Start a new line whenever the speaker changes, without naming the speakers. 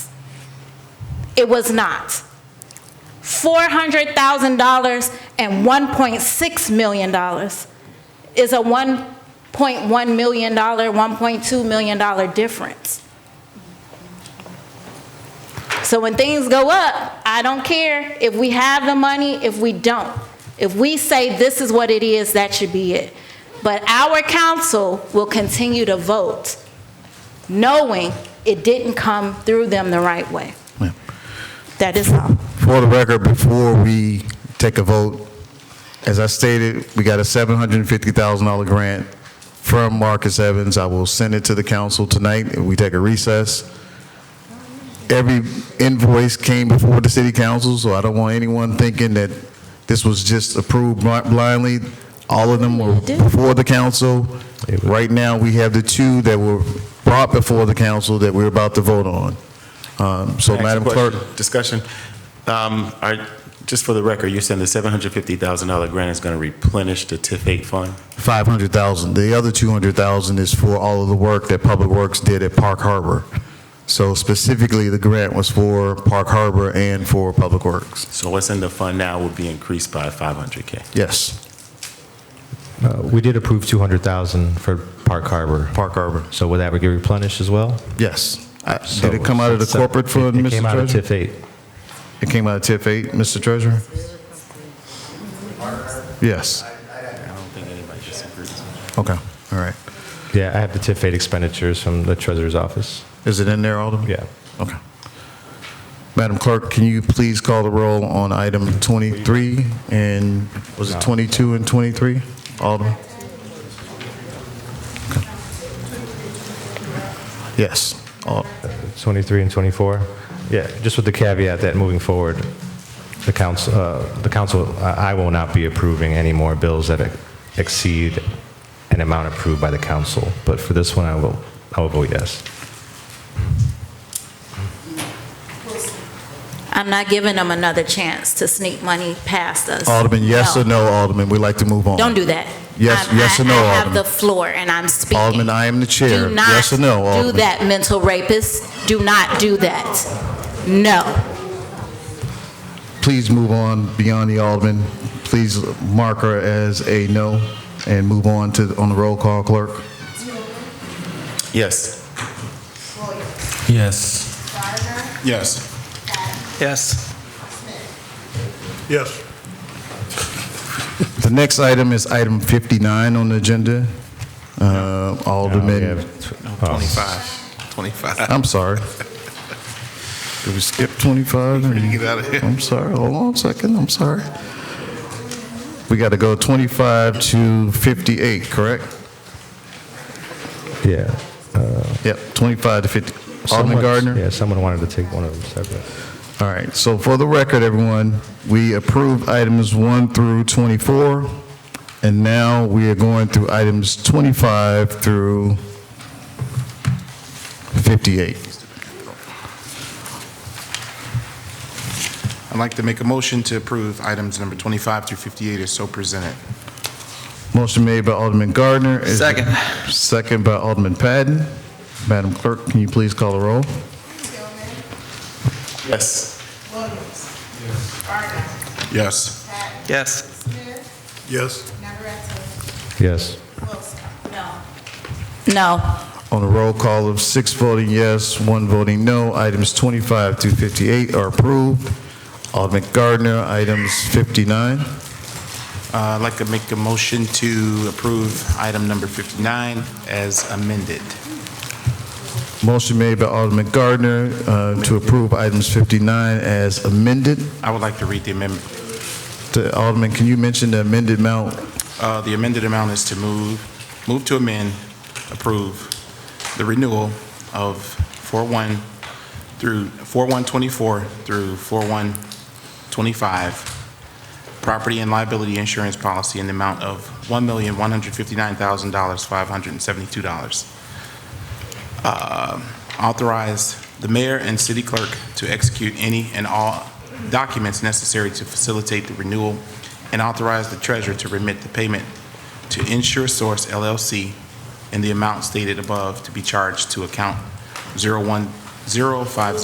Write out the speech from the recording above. It was not. $400,000 and $1.6 million is a $1.1 million, $1.2 million difference. So when things go up, I don't care if we have the money, if we don't. If we say this is what it is, that should be it. But our council will continue to vote, knowing it didn't come through them the right way.
Ma'am.
That is all.
For the record, before we take a vote, as I stated, we got a $750,000 grant from Marcus Evans. I will send it to the council tonight if we take a recess. Every invoice came before the city council, so I don't want anyone thinking that this was just approved bl- blindly. All of them were before the council. Right now, we have the two that were brought before the council that we're about to vote on. Um, So,
Next
Madam
question,
Clerk.
Discussion. Um, are- Just for the record, you're saying the $750,000 grant is going to replenish the TIF 8 fund?
500,000. The other 200,000 is for all of the work that Public Works did at Park Harbor. So specifically, the grant was for Park Harbor and for Public Works.
So what's in the fund now will be increased by 500K?
Yes,
Uh, We did approve 200,000 for Park Harbor.
Park Harbor,
So would that get replenished as well?
yes. I-
So
Did it come out of the
it's-
corporate fund,
It came out
Mr.
of
Treasurer?
TIF 8.
It came out of TIF 8, Mr. Treasurer? Yes,
I don't think anybody disagrees.
okay, all right.
Yeah, I have the TIF 8 expenditures from the treasurer's office.
Is it in there, Alderman?
Yeah.
Okay. Madam Clerk, can you please call the roll on item 23 and, was it 22 and 23? Alderman? Okay. Yes. Al-
23 and 24? Yeah, just with the caveat that moving forward, the council, uh, the council, I I will not be approving any more bills that exceed an amount approved by the council. But for this one, I will, I will vote yes.
I'm not giving them another chance to sneak money past us.
Alderman, yes or no, Alderman? We'd like to move on.
Don't do that.
Yes-
I'm-
yes or
I-
no,
I have
Alderman?
the floor, and I'm speaking.
Alderman, I am the chair.
Do not
Yes or no,
do
Alderman?
that, mental rapist. Do not do that. No.
Please move on beyond the Alderman. Please mark her as a no and move on to, on the roll call, Clerk.
Yes.
Yes.
Yes.
Yes.
Yes.
The next item is item 59 on the agenda. Uh,
Uh,
Alderman,
we have tw- oh.
25. 25.
I'm sorry. Did we skip 25?
get out of here.
I'm sorry, hold on a second, I'm sorry. We got to go 25 to 58, correct?
Um, Yeah.
Yep, 25 to 50. Alderman
Someone-
Gardner?
Yeah, someone wanted to take one of them separate.
All right, so for the record, everyone, we approved items 1 through 24, and now we are going through items 25 through 58.
I'd like to make a motion to approve items number 25 through 58 as so presented.
Motion made by Alderman Gardner. Is-
Second.
Second by Alderman Patton. Madam Clerk, can you please call the roll?
Yes.
Yes.
Yes.
Yes.
Yes.
No.
On a roll call of six voting yes, one voting no, items 25 through 58 are approved. Alderman Gardner, items 59.
Uh, I'd like to make a motion to approve item number 59 as amended.
Motion made by Alderman Gardner uh, to approve items 59 as amended.
I would like to read the amendment.
The- Alderman, can you mention the amended amount?
Uh, The amended amount is to move, move to amend, approve the renewal of 41 through, 4124 through 4125, property and liability insurance policy in the amount of $1,159,572. Authorize the mayor and city clerk to execute any and all documents necessary to facilitate the renewal and authorize the treasurer to remit the payment to Insure Source LLC in the amount stated above to be charged to account 01050